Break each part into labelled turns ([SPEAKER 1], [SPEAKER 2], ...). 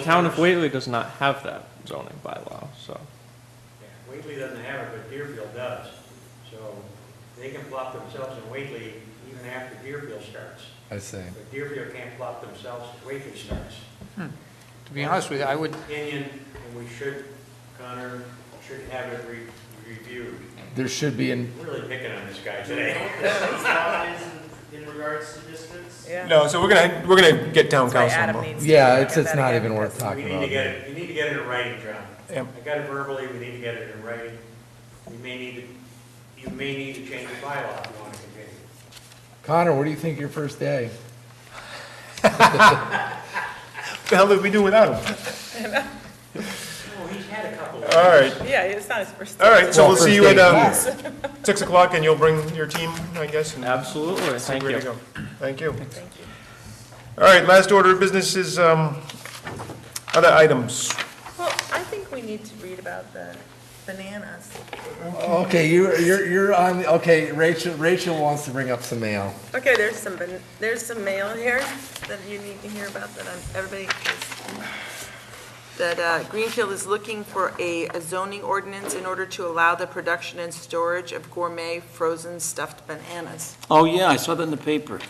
[SPEAKER 1] The Town of Whately does not have that zoning bylaw, so.
[SPEAKER 2] Yeah, Whately doesn't have it, but Deerfield does. So they can plop themselves in Whately even after Deerfield starts.
[SPEAKER 3] I see.
[SPEAKER 2] But Deerfield can't plop themselves if Whately starts.
[SPEAKER 4] To be honest with you, I would,
[SPEAKER 2] Opinion, and we should, Connor, should have it re- reviewed.
[SPEAKER 3] There should be an.
[SPEAKER 2] We're Really picking on this guy today.
[SPEAKER 5] in regards to distance?
[SPEAKER 6] Yeah.
[SPEAKER 7] No, so we're gonna, we're gonna get town
[SPEAKER 6] That's why
[SPEAKER 7] council
[SPEAKER 6] Adam
[SPEAKER 7] involved.
[SPEAKER 6] needs to.
[SPEAKER 3] Yeah,
[SPEAKER 6] look
[SPEAKER 3] it's,
[SPEAKER 6] at
[SPEAKER 3] it's
[SPEAKER 6] that
[SPEAKER 3] not
[SPEAKER 6] again,
[SPEAKER 3] even worth
[SPEAKER 6] because-
[SPEAKER 2] We
[SPEAKER 3] talking
[SPEAKER 2] need
[SPEAKER 3] about.
[SPEAKER 2] to get it, you need to get it in writing, John.
[SPEAKER 7] Yep.
[SPEAKER 2] I got it verbally, we need to get it in writing. We may need to, you may need to change the bylaw if you want to continue.
[SPEAKER 3] Connor, what do you think your first day?
[SPEAKER 7] What the hell did we do without him?
[SPEAKER 2] Oh, he's had a couple of.
[SPEAKER 7] All right,
[SPEAKER 6] Yeah, it's not his first.
[SPEAKER 7] all right, so
[SPEAKER 3] Well,
[SPEAKER 7] we'll see
[SPEAKER 3] first
[SPEAKER 7] you
[SPEAKER 3] day
[SPEAKER 7] at, um,
[SPEAKER 3] here.
[SPEAKER 7] six o'clock and you'll bring your team, I guess, and
[SPEAKER 1] Absolutely,
[SPEAKER 7] see
[SPEAKER 1] thank
[SPEAKER 7] where to
[SPEAKER 1] you.
[SPEAKER 7] go. Thank you. All right, last order of business is, um, other items.
[SPEAKER 6] Well, I think we need to read about the bananas.
[SPEAKER 3] Okay, you, you're, you're on, okay, Rachel, Rachel wants to bring up some mail.
[SPEAKER 6] Okay, there's some, ban- there's some mail here that you need to hear about that I'm- everybody is, that uh, Greenfield is looking for a a zoning ordinance in order to allow the production and storage of gourmet frozen stuffed bananas.
[SPEAKER 5] Oh, yeah, I saw that in the paper.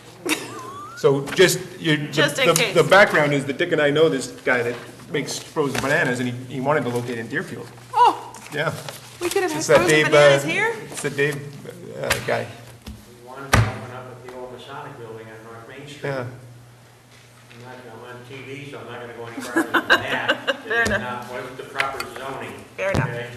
[SPEAKER 7] So just, you, the-
[SPEAKER 6] Just in
[SPEAKER 7] the,
[SPEAKER 6] case.
[SPEAKER 7] the background is that Dick and I know this guy that makes frozen bananas and he, he wanted to locate in Deerfield.
[SPEAKER 6] Oh,
[SPEAKER 7] Yeah,
[SPEAKER 6] we could have had
[SPEAKER 7] It's that
[SPEAKER 6] frozen
[SPEAKER 7] Dave, uh,
[SPEAKER 6] bananas here?
[SPEAKER 7] it's the Dave, uh, guy,
[SPEAKER 2] We wanted to open up at the old Masonic building on North Main Street.
[SPEAKER 7] yeah.
[SPEAKER 2] I'm not, I'm on TV, so I'm not gonna go any further than that.
[SPEAKER 6] Fair
[SPEAKER 2] It's
[SPEAKER 6] enough.
[SPEAKER 2] not- Wasn't the proper zoning,
[SPEAKER 6] Fair enough,
[SPEAKER 2] okay?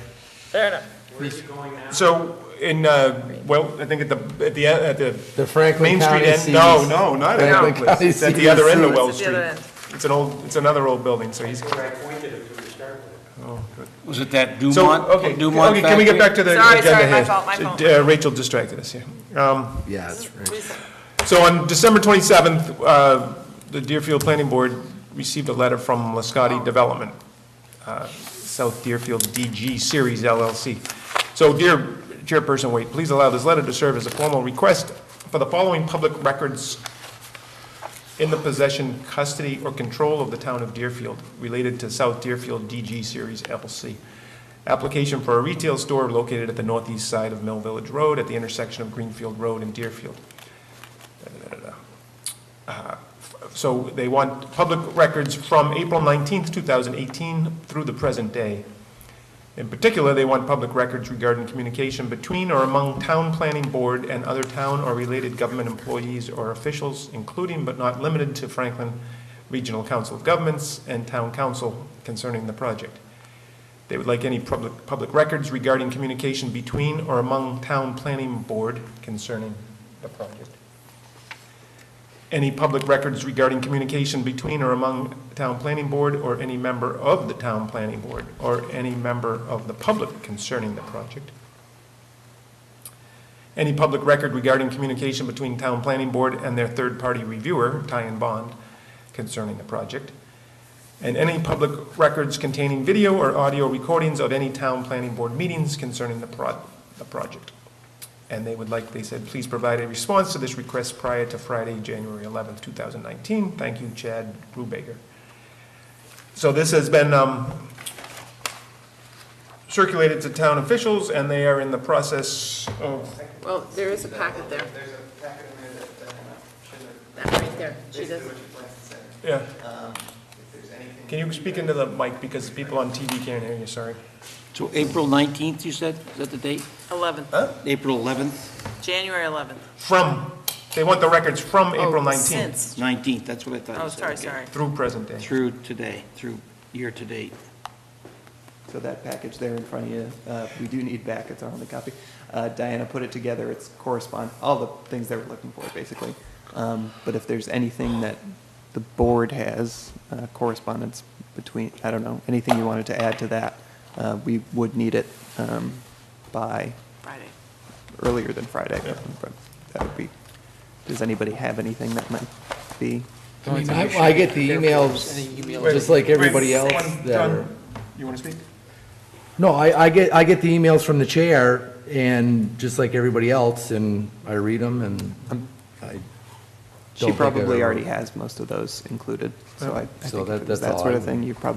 [SPEAKER 6] fair enough.
[SPEAKER 2] Where is it going now?
[SPEAKER 7] So in, uh, well, I think at the, at the, at the
[SPEAKER 3] The Franklin
[SPEAKER 7] Main Street
[SPEAKER 3] County
[SPEAKER 7] end,
[SPEAKER 3] sees.
[SPEAKER 7] no, no, not at
[SPEAKER 3] Franklin
[SPEAKER 7] Alquist,
[SPEAKER 3] County
[SPEAKER 7] it's at the
[SPEAKER 3] sees
[SPEAKER 7] other end
[SPEAKER 3] you.
[SPEAKER 7] of Wells
[SPEAKER 6] It's at the
[SPEAKER 7] Street.
[SPEAKER 6] other end.
[SPEAKER 7] It's an old, it's another old building, so he's,
[SPEAKER 2] That's where I pointed it to to start with.
[SPEAKER 7] oh, good.
[SPEAKER 5] Was it that
[SPEAKER 7] So,
[SPEAKER 5] Dumont?
[SPEAKER 7] okay,
[SPEAKER 5] Dumont
[SPEAKER 7] okay, can we
[SPEAKER 5] factory?
[SPEAKER 7] get back to the
[SPEAKER 6] Sorry,
[SPEAKER 7] agenda here?
[SPEAKER 6] sorry, my fault, my fault.
[SPEAKER 7] Uh, Rachel distracted us, yeah. Um,
[SPEAKER 3] Yeah, it's Rachel.
[SPEAKER 7] So on December 27th, uh, the Deerfield Planning Board received a letter from Lascotti Development, uh, South Deerfield DG Series LLC. So dear Chairperson Wade, please allow this letter to serve as a formal request for the following public records in the possession, custody, or control of the town of Deerfield related to South Deerfield DG Series LLC. Application for a retail store located at the northeast side of Mill Village Road at the intersection of Greenfield Road and Deerfield. So they want public records from April 19th, 2018 through the present day. In particular, they want public records regarding communication between or among town planning board and other town or related government employees or officials, including but not limited to Franklin Regional Council of Governments and Town Council concerning the project. They would like any public, public records regarding communication between or among town planning board concerning the project any public records regarding communication between or among town planning board or any member of the town planning board or any member of the public concerning the project. Any public record regarding communication between town planning board and their third-party reviewer, Ty and Bond, concerning the project. And any public records containing video or audio recordings of any town planning board meetings concerning the pro, the project. And they would like, they said, please provide a response to this request prior to Friday, January 11th, 2019. Thank you, Chad Rubaker. So this has been um, circulated to town officials, and they are in the process of,
[SPEAKER 6] Well, there is a packet there,
[SPEAKER 5] There's a packet in there that, uh, should have,
[SPEAKER 6] that right there, she
[SPEAKER 5] basically
[SPEAKER 6] does.
[SPEAKER 5] what you planned
[SPEAKER 7] yeah.
[SPEAKER 5] to say. Um, if there's anything.
[SPEAKER 7] Can you speak into the mic, because people on TV can't hear you, sorry.
[SPEAKER 8] So April 19th, you said? Is that the date?
[SPEAKER 6] 11th,
[SPEAKER 8] April 11th,
[SPEAKER 6] January 11th.
[SPEAKER 7] From, they want the records from April
[SPEAKER 6] Oh,
[SPEAKER 7] 19th
[SPEAKER 6] Since,
[SPEAKER 8] 19th, that's what I thought
[SPEAKER 6] oh,
[SPEAKER 8] you said.
[SPEAKER 6] sorry,
[SPEAKER 8] okay.
[SPEAKER 6] sorry.
[SPEAKER 7] through present day.
[SPEAKER 8] Through today, through year-to-date.
[SPEAKER 9] So that package there in front of you, uh, we do need back, it's our only copy. Uh, Diana put it together, it's correspond, all the things they were looking for, basically. Um, But if there's anything that the board has, uh, correspondence between, I don't know, anything you wanted to add to that, uh, we would need it um, by
[SPEAKER 6] Friday.
[SPEAKER 9] earlier than Friday. But That would be, does anybody have anything that might be?
[SPEAKER 3] I mean, I, I get the emails, just like everybody else
[SPEAKER 7] Wait, one-
[SPEAKER 3] that
[SPEAKER 7] John,
[SPEAKER 3] are.
[SPEAKER 7] You want to speak?
[SPEAKER 3] No, I, I get, I get the emails from the chair and just like everybody else and I read them and I
[SPEAKER 9] She
[SPEAKER 3] Don't think I've
[SPEAKER 9] probably
[SPEAKER 3] ever-
[SPEAKER 9] already has most of those included, so I I
[SPEAKER 3] So
[SPEAKER 9] think
[SPEAKER 3] that-
[SPEAKER 9] if it
[SPEAKER 3] that's
[SPEAKER 9] was that
[SPEAKER 3] all I
[SPEAKER 9] sort of
[SPEAKER 3] would-
[SPEAKER 9] thing, you probably